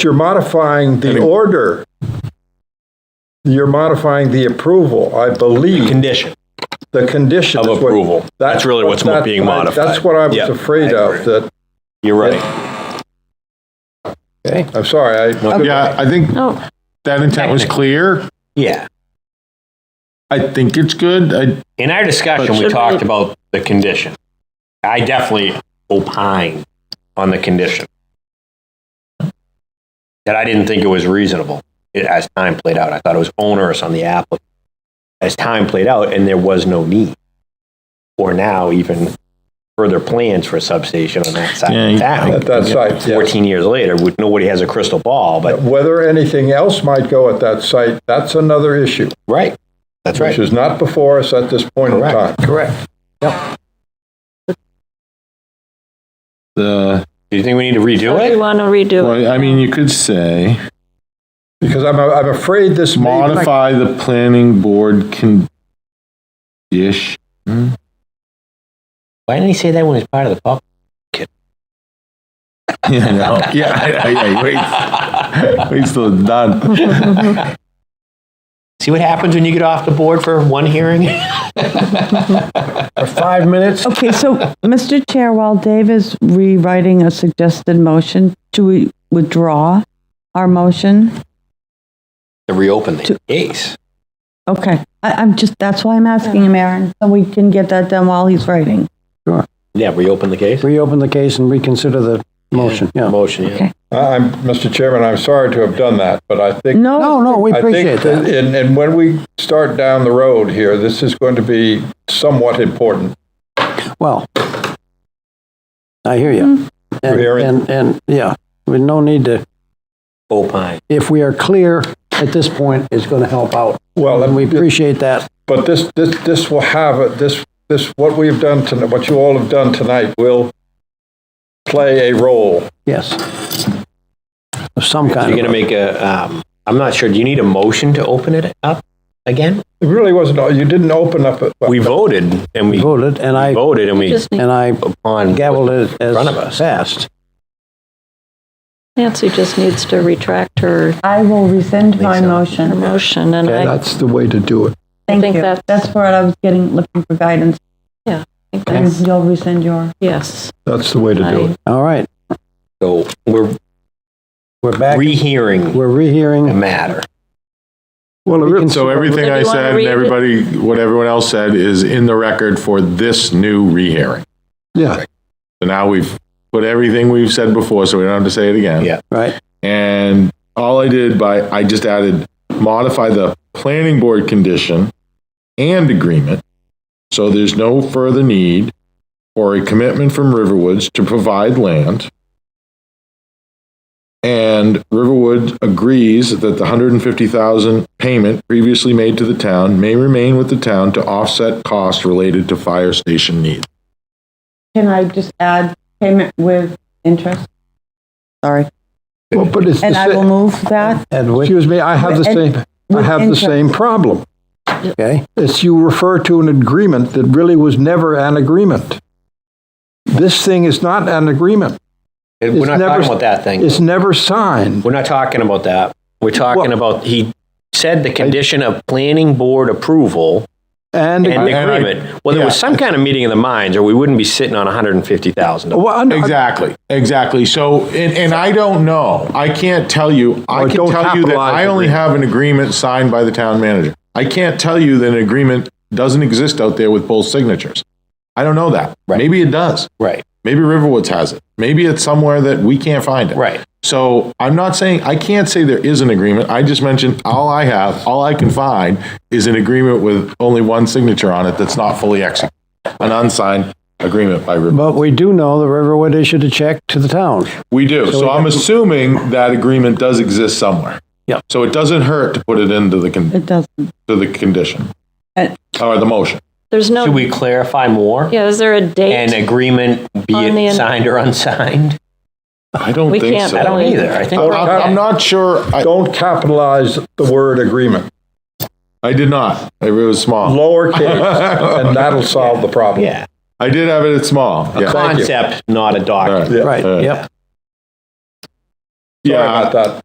You're modifying the order. You're modifying the approval, I believe, Condition. the condition. Of is what- approval. That's that- really what's that- being modified. That's what I was Yeah, afraid I of, that, You're right. I'm sorry, I, Yeah, I think Oh, that intent was clear. Yeah. I think it's good. I, In our discussion, we But- talked about the condition. I definitely opined on the condition. That I didn't think it was reasonable eh, as time played out. I thought it was onerous on the applicant. As time played out, and there was no need. Or now even further plans for a substation on that side Yeah, of town. at that site, yeah. 14 years later, we- nobody has a crystal ball, but, Whether anything else might go at that site, that's another issue, right, that's which right. is not before us at this point in time. Correct, correct. the, Do you think we need to redo you it? want to redo it? well, I mean, you could say Because I'm, I'm afraid this may. modify the planning board condition. Why didn't he say that when it's part of the public? Yeah, I know. yeah, I- I- I- wait. Wait till it's done. See what happens when you get off the board for one hearing? Five minutes? Okay, so, Mr. Chair, while Dave is rewriting a suggested motion, do we withdraw our motion? To reopen the case. Okay, I, I'm just, that's why I'm asking him, Aaron, so we can get that done while he's writing. Yeah, reopen the case. reopen the case and reconsider the motion, yeah. Motion, yeah. I- I'm, Mr. Chairman, I'm sorry to have done that, but I think. No, No, no, we I think appreciate that. And, and when we start down the road here, this is going to be somewhat important. Well, I hear you. And, Coherent. and, and, yeah, we no need to, Opine. if we are clear at this point, it's going to help out. Well, And we appreciate that. But this, this, this will have, a- this, this, what we've done tonight, what you all have done tonight will play a role. Yes. Of some kind. You're of- going to make a, um, I'm not sure, do you need a motion to open it up again? It really wasn't, you didn't open up, a- We voted and we Voted, and I, voted and we Just need- and I upon. gavelled it front of us. as fast. Nancy just needs to retract her I will rescind my her motion. motion, and I that's the way to do it. Thank think you. that's- That's where I was getting, looking for guidance, think and that's, you'll rescind your. yes. That's the way to do I- it. All right, So we're we're back, rehearing we're the rehearing. matter. Well, So everything I Maybe wanna said and read it? everybody, what everyone else said is in the record for this new rehearing. Yeah. So now we've put everything we've said before, so we don't have to say it again. Yeah. Right, And all I did by, I just added modify the planning board condition and agreement. So there's no further need for a commitment from Riverwoods to provide land. And Riverwood agrees that the 150,000 payment previously made to the town may remain with the town to offset costs related to fire station needs. Can I just add payment with interest? Sorry, Well, but it's, and I will move that, and which, me, I have the same- I have the same problem. okay, It's you refer to an agreement that really was never an agreement. This thing is not an agreement. We're not never- talking about that thing. It's never signed. We're not talking about that. We're talking about, he said the condition of planning board approval And, and And I- agreement. Well, there was yeah. some kind of meeting of the minds or we wouldn't be sitting on 150,000. well, I- Exactly, exactly. So, and, and I don't know. I can't tell you. I Or can don't tell you that capitalize I the only agreement. have an agreement signed by the town manager. I can't tell you that an agreement doesn't exist out there with both signatures. I don't know that. Maybe it does. Right, Maybe Riverwoods has it. Maybe it's somewhere that we can't find it. right. So I'm not saying, I can't say there is an agreement. I just mentioned all I have, all I can find is an agreement with only one signature on it that's not fully executed, an unsigned agreement by Riverwoods. but we do know the Riverwood issued a check to the town. We do. So I'm assuming that agreement does exist somewhere. Yeah. So it doesn't hurt to put it into the, con- it doesn't. to the condition. And- Or the motion. There's Should no, we clarify more? yeah, is there a An date? agreement, be On the- it signed or unsigned? I don't We think can't- so. I don't either. I think, I'm- I'm I'm not sure. I, don't capitalize the word agreement, I did not. It was small. lowercase, and that'll solve the problem. yeah, I did have it at small. Yeah. Thank you. concept, not a All document. Yeah. Right, All yep. Sorry Yeah. about that.